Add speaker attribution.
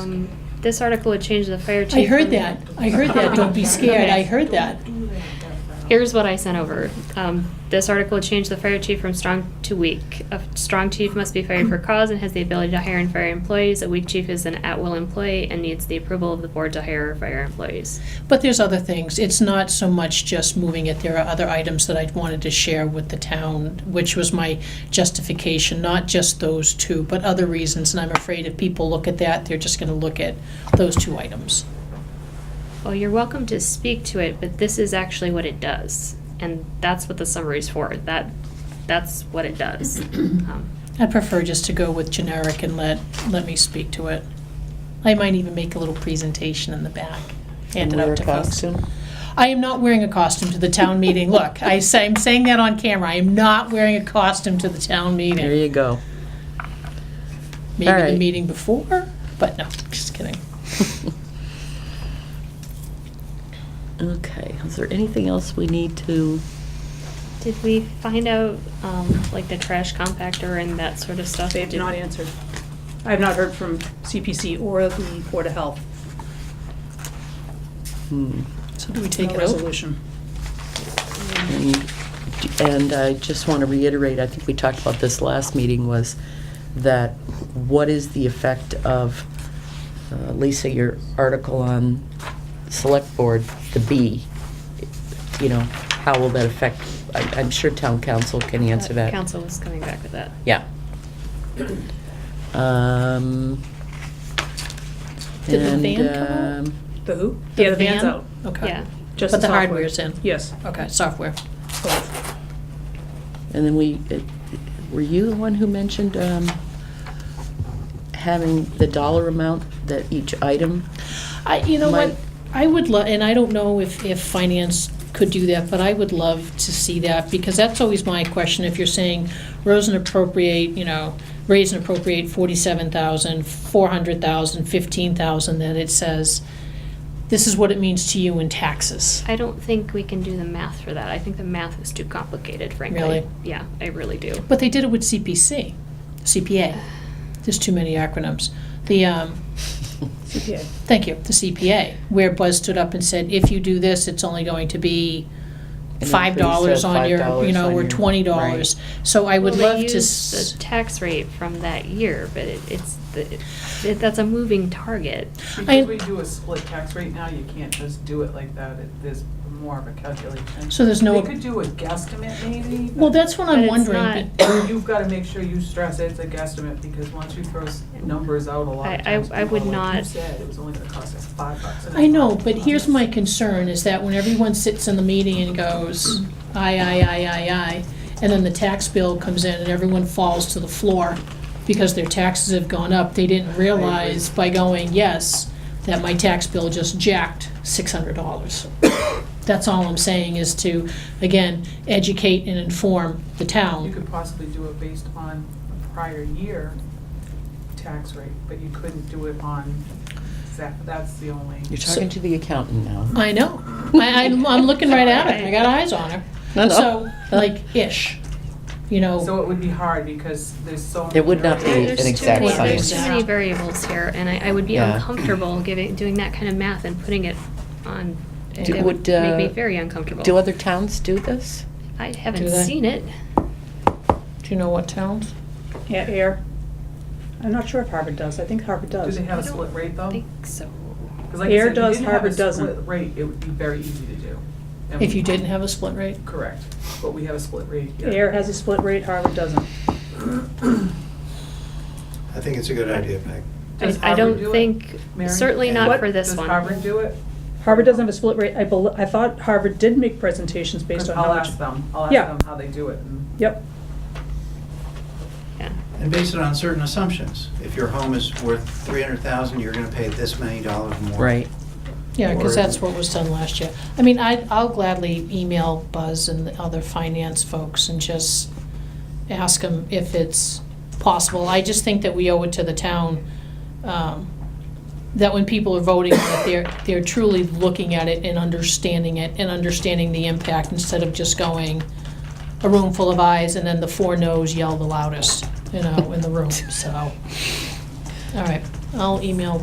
Speaker 1: Um, This article would change the fire chief.
Speaker 2: I heard
Speaker 1: from-
Speaker 2: that. I heard that. Don't be scared. I heard that.
Speaker 1: Here's what I sent over. Um, This article would change the fire chief from strong to weak. A strong chief must be fired for cause and has the ability to hire and fire employees. A weak chief is an at-will employee and needs the approval of the board to hire or fire employees.
Speaker 2: But there's other things. It's not so much just moving it. There are other items that I wanted to share with the town, which was my justification, not just those two, but other reasons. And I'm afraid if people look at that, they're just gonna look at those two items.
Speaker 1: Well, you're welcome to speak to it, but this is actually what it does. And that's what the summary's for. That, that's what it does. Um,
Speaker 2: I prefer just to go with generic and let, let me speak to it. I might even make a little presentation in the back, hand it
Speaker 3: Wear
Speaker 2: out
Speaker 3: a
Speaker 2: to folks.
Speaker 3: costume?
Speaker 2: I am not wearing a costume to the town meeting. Look, I say, I'm saying that on camera. I am not wearing a costume to the town
Speaker 3: There
Speaker 2: meeting.
Speaker 3: you go.
Speaker 2: Maybe the
Speaker 3: Alright.
Speaker 2: meeting before, but no, just kidding.
Speaker 3: Okay, is there anything else we need to,
Speaker 1: Did we find out, um, like the trash compactor and that sort of stuff?
Speaker 4: They have
Speaker 1: Did-
Speaker 4: not answered. I have not heard from CPC or the Board of Health.
Speaker 3: hmm,
Speaker 2: So do we
Speaker 4: No
Speaker 2: take it out?
Speaker 4: Resolution.
Speaker 3: and- and I just want to reiterate, I think we talked about this last meeting, was that what is the effect of, uh, Lisa, your article on select board, the B? You know, how will that affect, I- I'm sure town council can answer that.
Speaker 1: Council was coming back with that.
Speaker 3: Yeah. Um.
Speaker 2: Did the
Speaker 3: and,
Speaker 2: van come out?
Speaker 3: um,
Speaker 4: The who?
Speaker 2: The
Speaker 4: Yeah, the van's
Speaker 2: van?
Speaker 4: out.
Speaker 2: Okay.
Speaker 1: Yeah.
Speaker 4: Just
Speaker 2: But the
Speaker 4: software.
Speaker 2: hardware's in. Oh,
Speaker 4: Yes.
Speaker 2: Okay, software.
Speaker 4: both.
Speaker 3: And then we, uh, were you the one who mentioned um, having the dollar amount that each item?
Speaker 2: I, you know what,
Speaker 3: Might-
Speaker 2: I would love, and I don't know if, if finance could do that, but I would love to see that, because that's always my question, if you're saying rose and appropriate, you know, raise and appropriate forty-seven thousand, four hundred thousand, fifteen thousand, then it says, this is what it means to you in taxes.
Speaker 1: I don't think we can do the math for that. I think the math is too complicated, frankly.
Speaker 2: Really?
Speaker 1: Yeah, I really do.
Speaker 2: But they did it with CPC, CPA, there's too many acronyms. The, um,
Speaker 4: CPA.
Speaker 2: Thank you, the CPA, where Buzz stood up and said, if you do this, it's only going to be
Speaker 3: An
Speaker 2: five
Speaker 3: increase
Speaker 2: dollars
Speaker 3: of
Speaker 2: on your, you
Speaker 3: $5
Speaker 2: know,
Speaker 3: on
Speaker 2: or
Speaker 3: your-
Speaker 2: twenty dollars. So I would
Speaker 1: Well, they
Speaker 2: love to,
Speaker 1: use
Speaker 2: s-
Speaker 1: The tax rate from that year, but it, it's, the- it, that's a moving target.
Speaker 2: I-
Speaker 5: Because we do a split tax rate now, you can't just do it like that, It- there's more of a calculation.
Speaker 2: So there's no-
Speaker 5: They could do a guesstimate maybe. but
Speaker 2: well, that's what
Speaker 1: But
Speaker 2: I'm
Speaker 1: it's
Speaker 2: wondering.
Speaker 1: not-
Speaker 5: You've gotta make sure you stress it's a guesstimate, because once you throw s- numbers out a lot
Speaker 1: I- I-
Speaker 5: of times,
Speaker 1: I would
Speaker 5: people are like you
Speaker 1: not-
Speaker 5: said, it was only gonna cost us five bucks. and
Speaker 2: I
Speaker 5: it's
Speaker 2: know,
Speaker 5: not
Speaker 2: but here's
Speaker 5: honest.
Speaker 2: my concern, is that when everyone sits in the meeting and goes, aye, aye, aye, aye, aye, and then the tax bill comes in and everyone falls to the floor because their taxes have gone up, they didn't realize by going, yes, that my tax bill just jacked six hundred dollars. That's all I'm saying, is to, again, educate and inform the
Speaker 5: You
Speaker 2: town.
Speaker 5: could possibly do it based on a prior year tax rate, but you couldn't do it on, that- that's the only.
Speaker 3: You're talking to the accountant now.
Speaker 2: I know, I, I'm, I'm looking right at her, I got eyes on her.
Speaker 3: No, no.
Speaker 2: So, like, ish, you know.
Speaker 5: So it would be hard, because there's so.
Speaker 3: It would not be
Speaker 5: many
Speaker 1: Oh. There's
Speaker 3: an
Speaker 5: variables.
Speaker 1: too
Speaker 3: exact
Speaker 1: many-
Speaker 2: science.
Speaker 1: There's too many variables here, and I, I would be
Speaker 3: Yeah.
Speaker 1: uncomfortable giving, doing that kind of math and putting it on,
Speaker 3: Do-
Speaker 1: it would
Speaker 3: would, uh,
Speaker 1: make me very uncomfortable.
Speaker 3: Do other towns do this?
Speaker 1: I
Speaker 2: Do
Speaker 1: haven't
Speaker 2: they?
Speaker 1: seen it.
Speaker 2: Do you know what towns?
Speaker 4: Yeah, air. I'm not sure if Harvard does. I think Harvard
Speaker 5: Do
Speaker 4: does.
Speaker 5: they have
Speaker 1: I
Speaker 5: a split
Speaker 1: don't
Speaker 5: rate though?
Speaker 1: Think so.
Speaker 5: 'Cause like I
Speaker 4: Air
Speaker 5: said, if you
Speaker 4: does,
Speaker 5: didn't have a
Speaker 4: Harvard doesn't.
Speaker 5: split Rate, it would be very easy to do. And
Speaker 2: If
Speaker 5: we-
Speaker 2: you didn't have a split rate?
Speaker 5: Correct, but we have a split rate here.
Speaker 4: Air has a split rate, Harvard doesn't.
Speaker 6: I think it's a good idea, Peg.
Speaker 5: Does
Speaker 1: I- I don't
Speaker 5: Harvard do it,
Speaker 1: think-
Speaker 5: Mary?
Speaker 1: certainly
Speaker 6: not
Speaker 5: What-
Speaker 1: for this one.
Speaker 5: Does Harvard do it?
Speaker 4: Harvard doesn't have a split rate. I bel, I thought Harvard did make presentations based
Speaker 5: 'Cause
Speaker 4: on how
Speaker 5: I'll
Speaker 4: much.
Speaker 5: ask them, I'll ask
Speaker 4: Yeah.
Speaker 5: them how they do it. and-
Speaker 4: Yep.
Speaker 1: Yeah.
Speaker 6: And base it on certain assumptions. If your home is worth three hundred thousand, you're gonna pay this many dollars more.
Speaker 3: Right.
Speaker 2: Yeah, because
Speaker 6: Or-
Speaker 2: that's what was done last year. I mean, I, I'll gladly email Buzz and the other finance folks and just ask them if it's possible. I just think that we owe it to the town, um, that when people are voting, that they're, they're truly looking at it and understanding it and understanding the impact instead of just going a room full of eyes and then the four no's yell the loudest, you know, in the room, so. All right, I'll email